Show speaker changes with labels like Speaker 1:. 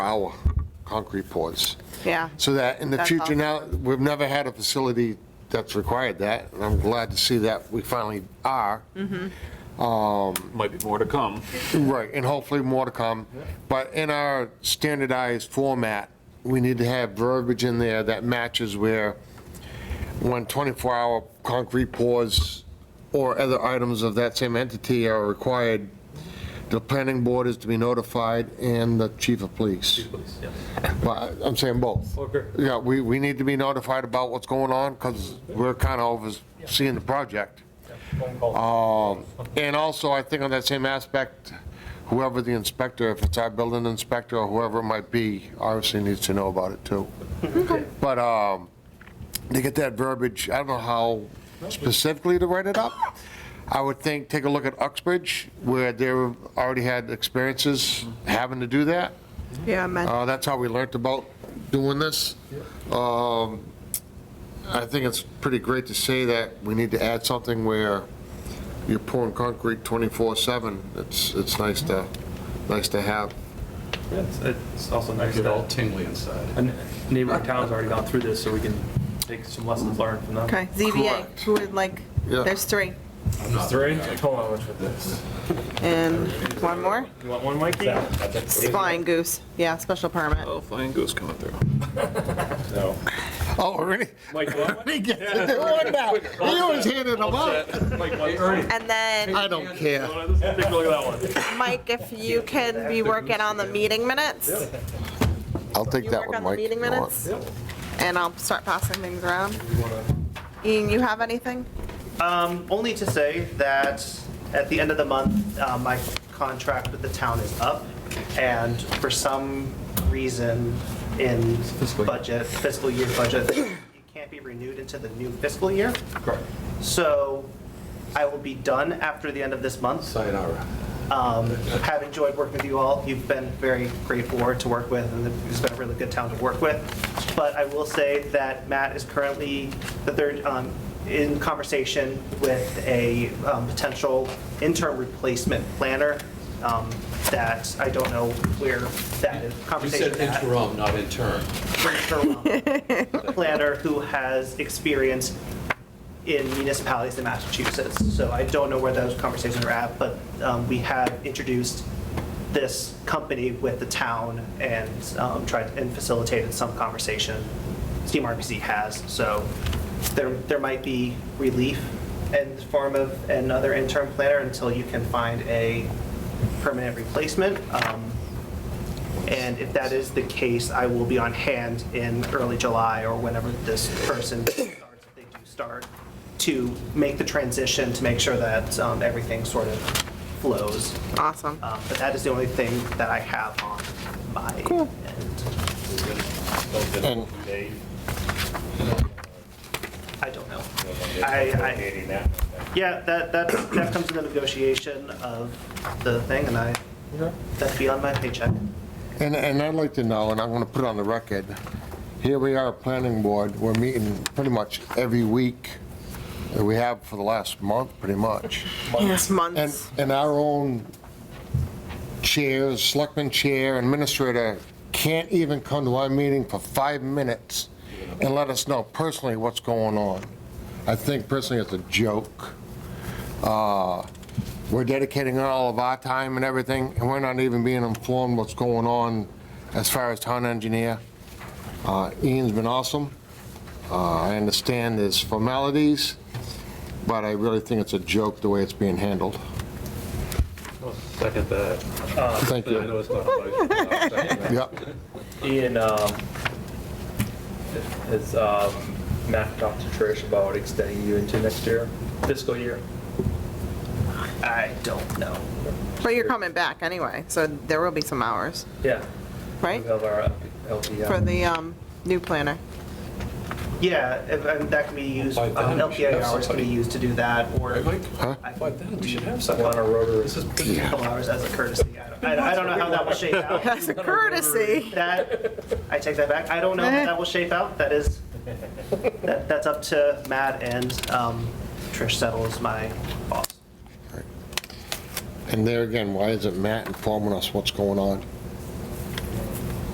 Speaker 1: our concrete pours.
Speaker 2: Yeah.
Speaker 1: So that in the
Speaker 2: That's
Speaker 1: future
Speaker 2: awesome.
Speaker 1: now, we've never had a facility that's required that, and I'm glad to see that we finally are.
Speaker 2: Mm-hmm.
Speaker 3: Might be more to come.
Speaker 1: Right, and hopefully more to come. But in our standardized format, we need to have verbiage in there that matches where when 24-hour concrete pours or other items of that same entity are required, the planning board is to be notified and the chief of police. But I'm saying both.
Speaker 3: Okay.
Speaker 1: Yeah, we, we need to be notified about what's going on because we're kind of overseeing the project. Um, And also, I think on that same aspect, whoever the inspector, if it's our building inspector or whoever it might be, obviously needs to know about it too. But um, to get that verbiage, I don't know how specifically to write it up. I would think, take a look at Uxbridge, where they already had experiences having to do that.
Speaker 2: Yeah, man.
Speaker 1: Uh, That's how we learned about doing this. Um, I think it's pretty great to say that we need to add something where you're pouring concrete 24/7. It's, it's nice to, nice to have.
Speaker 4: It's it's also nice
Speaker 3: Get all
Speaker 4: that
Speaker 3: tingly inside.
Speaker 4: a n- neighboring town's already gone through this, so we can take some lessons learned from them.
Speaker 2: Okay, ZBA,
Speaker 1: Correct.
Speaker 2: who would like,
Speaker 1: Yeah.
Speaker 2: there's three.
Speaker 4: Three? Hold on, which with this?
Speaker 2: And one more?
Speaker 4: You want one, Mikey?
Speaker 2: Flying goose, yeah, special permit.
Speaker 3: Oh, flying goose coming through.
Speaker 4: No.
Speaker 1: Oh, really?
Speaker 4: Mike, you want one?
Speaker 1: He gets to do it now. He always handed them out.
Speaker 4: Mike, want one?
Speaker 2: And then,
Speaker 1: I don't care.
Speaker 4: Take a look at that one.
Speaker 2: Mike, if you can be working on the meeting minutes,
Speaker 1: I'll take
Speaker 2: You
Speaker 1: that
Speaker 2: work
Speaker 1: one,
Speaker 2: on the
Speaker 1: Mike.
Speaker 2: meeting
Speaker 1: if you want.
Speaker 2: minutes? and I'll start passing things around. Ian, you have anything?
Speaker 5: Um, only to say that at the end of the month, uh, my contract with the town is up, and for some reason in budget, fiscal year budget, it can't be renewed into the new fiscal year.
Speaker 4: Correct.
Speaker 5: So I will be done after the end of this month.
Speaker 3: Sayonara.
Speaker 5: Um, Have enjoyed working with you all. You've been very great board to work with, and it's been a really good town to work with. But I will say that Matt is currently, the third, um, in conversation with a um, potential interim replacement planner um, that I don't know where that is-
Speaker 6: You
Speaker 5: conversation
Speaker 6: said
Speaker 5: is at
Speaker 6: interim, not intern.
Speaker 5: planner who has experience in municipalities in Massachusetts. So I don't know where those conversations are at, but um, we have introduced this company with the town and um, tried and facilitated some conversation. Steam RPC has, so there, there might be relief in the form of another interim planner until you can find a permanent replacement. Um, and if that is the case, I will be on hand in early July or whenever this person starts, if they do start, to make the transition, to make sure that um, everything sort of flows.
Speaker 2: Awesome.
Speaker 1: Uh,
Speaker 5: Um, But that is the only thing that I have on my end.
Speaker 1: And
Speaker 5: I don't know. I, I, yeah, that, that, that comes in the negotiation of the thing, and I, that'd be on my paycheck.
Speaker 1: And, and I'd like to know, and I'm gonna put it on the record, here we are, planning board, we're meeting pretty much every week that we have for the last month, pretty much.
Speaker 2: Yes,
Speaker 1: And,
Speaker 2: months.
Speaker 1: and our own chairs, selectman chair, administrator, can't even come to our meeting for five minutes and let us know personally what's going on. I think personally it's a joke. Uh, We're dedicating all of our time and everything, and we're not even being informed what's going on as far as town engineer. Uh, Ian's been awesome. Uh, I understand there's formalities, but I really think it's a joke the way it's being handled.
Speaker 4: Second that.
Speaker 1: Thank
Speaker 3: Uh, I
Speaker 1: you.
Speaker 3: know it's not like.
Speaker 1: Yep.
Speaker 4: Ian, um, has, um, Matt talked to Trish about extending you into next year, fiscal year?
Speaker 5: I don't know.
Speaker 2: But you're coming back anyway, so there will be some hours,
Speaker 4: Yeah.
Speaker 2: right?
Speaker 4: We have our LPI.
Speaker 2: For the um, new planner.
Speaker 5: Yeah, if- and that can be used,
Speaker 6: By
Speaker 5: um,
Speaker 6: then we should
Speaker 5: LPI
Speaker 6: have
Speaker 5: hours can be
Speaker 6: somebody-
Speaker 5: used to do that, or
Speaker 6: Right, Mike?
Speaker 5: I
Speaker 6: By then, we should have
Speaker 4: On a
Speaker 6: someone.
Speaker 4: rotary, this is
Speaker 5: couple hours as a courtesy. I don't- I I don't know how that will shape out.
Speaker 2: That's a courtesy.
Speaker 5: That, I take that back. I don't know how that will shape out. That is, that that's up to Matt and um, Trish Settle is my boss.
Speaker 1: And there again, why isn't Matt informing us what's going on?